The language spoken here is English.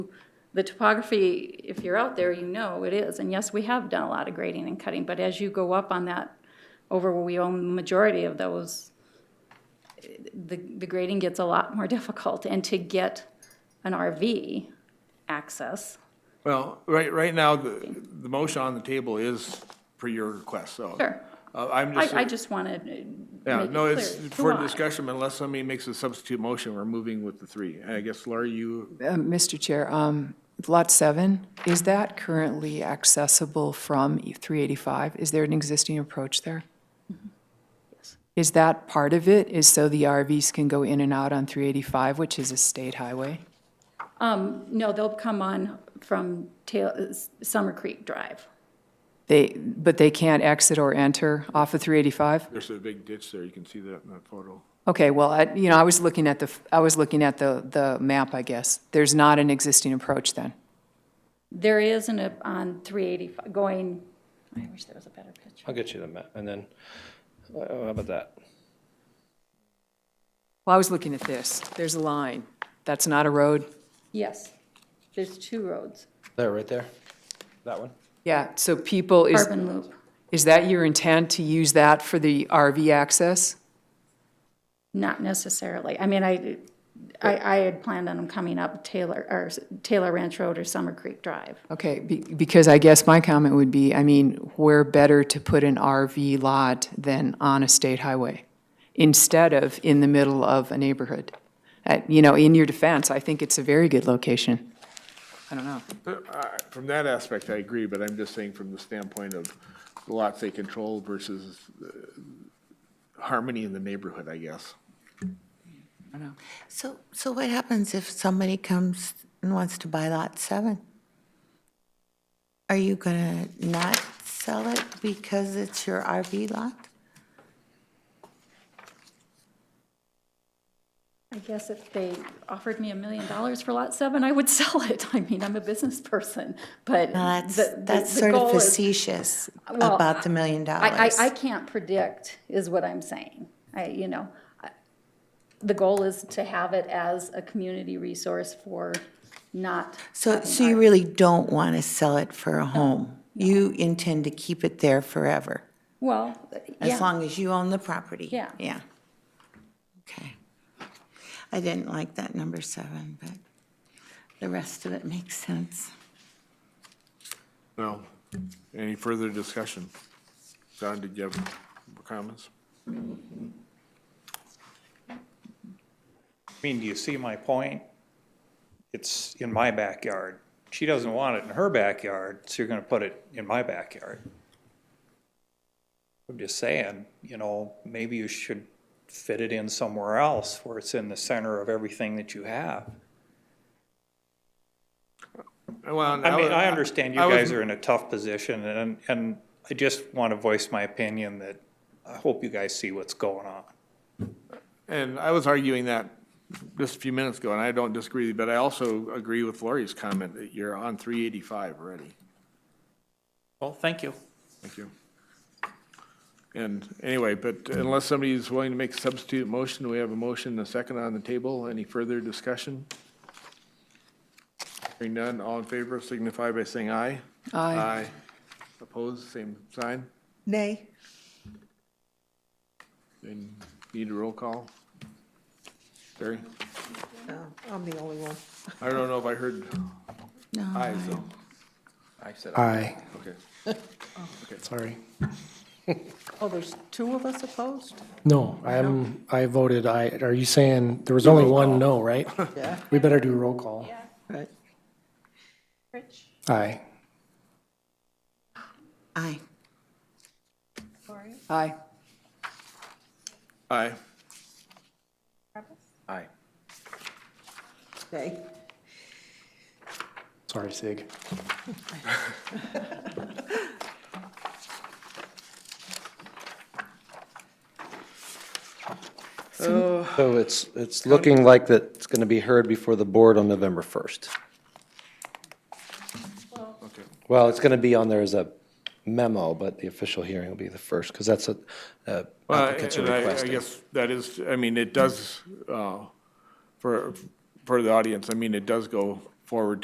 the topography, if you're out there, you know it is. And yes, we have done a lot of grading and cutting, but as you go up on that, over where we own the majority of those, the, the grading gets a lot more difficult. And to get an RV access, Well, right, right now, the, the motion on the table is per your request, so. Sure. Uh, I'm just, I, I just wanted to yeah, make it no, it's clear. for Why? discussion, but unless somebody makes a substitute motion, we're moving with the three. I guess, Laura, you, Uh, Mr. Chair, um, Lot 7, is that currently accessible from 385? Is there an existing approach there? Is that part of it, is so the RVs can go in and out on 385, which is a state highway? No, they'll come on from Tail, uh, Summer Creek Drive. They, but they can't exit or enter off of 385? there's a big ditch there, you can see that in that photo. Okay, well, I- you know, I was looking at the, f- I was looking at the, the map, I guess. There's not an existing approach then? There is an, uh, on 385, going, I wish there was a better picture. I'll get you the map, and then, uh, how about that? Well, I was looking at this. There's a line. That's not a road? Yes, there's two roads, There, right there? That one? Yeah, so people is. Carbon Loop. Is that your intent to use that for the RV access? Not necessarily. I mean, I, I, I had planned on them coming up Taylor, or Taylor Ranch Road or Summer Creek Drive. Okay, be- because I guess my comment would be, I mean, where better to put an RV lot than on a state highway instead of in the middle of a neighborhood? Uh, You know, in your defense, I think it's a very good location. I don't know. Uh, From that aspect, I agree, but I'm just saying from the standpoint of the lots they control versus uh, harmony in the neighborhood, I guess. So, so what happens if somebody comes and wants to buy lot seven? Are you gonna not sell it because it's your RV lot? I guess if they offered me a million dollars for Lot 7, I would sell it. I mean, I'm a business person, but. Now, that's, the- the- that's the sort of goal is- facetious Well, about the million I, dollars. I, I can't predict, is what I'm saying. I, you know, I- the goal is to have it as a community resource for not, So, so you really don't wanna sell it for a home? You intend to keep it there forever, well, as yeah, long as you own the property? Yeah. Yeah. Okay. I didn't like that number seven, but the rest of it makes sense. No. Any further discussion? John, did you have comments? I mean, do you see my point? It's in my backyard. She doesn't want it in her backyard, so you're gonna put it in my backyard. I'm just saying, you know, maybe you should fit it in somewhere else where it's in the center of everything that you have. I mean, I understand you guys are in a tough position and, and I just want to voice my opinion that I hope you guys see what's going on. And I was arguing that just a few minutes ago, and I don't disagree, but I also agree with Lori's comment that you're on three eighty-five already. Well, thank you. Thank you. And anyway, but unless somebody is willing to make a substitute motion, we have a motion and a second on the table. Any further discussion? Hearing none, all in favor signify by saying aye. Aye. Opposed, same sign. Nay. And need a roll call? Barry? Oh, I'm the only one. I don't know if I heard No, ayes though. I said. Aye, Okay. sorry. Oh, there's two of us opposed? No, I'm, I voted aye. Are you saying, there was only one no, right? Yeah. We better do roll call. Right. Aye. aye. Aye. Aye. Aye. Okay. Sorry, Sig. So it's, it's looking like that it's gonna be heard before the board on November first. Okay. Well, it's gonna be on there as a memo, but the official hearing will be the first, because that's what uh, Well, applicants are and I- I requesting. guess that is, I mean, it does, uh, for, for the audience, I mean, it does go forward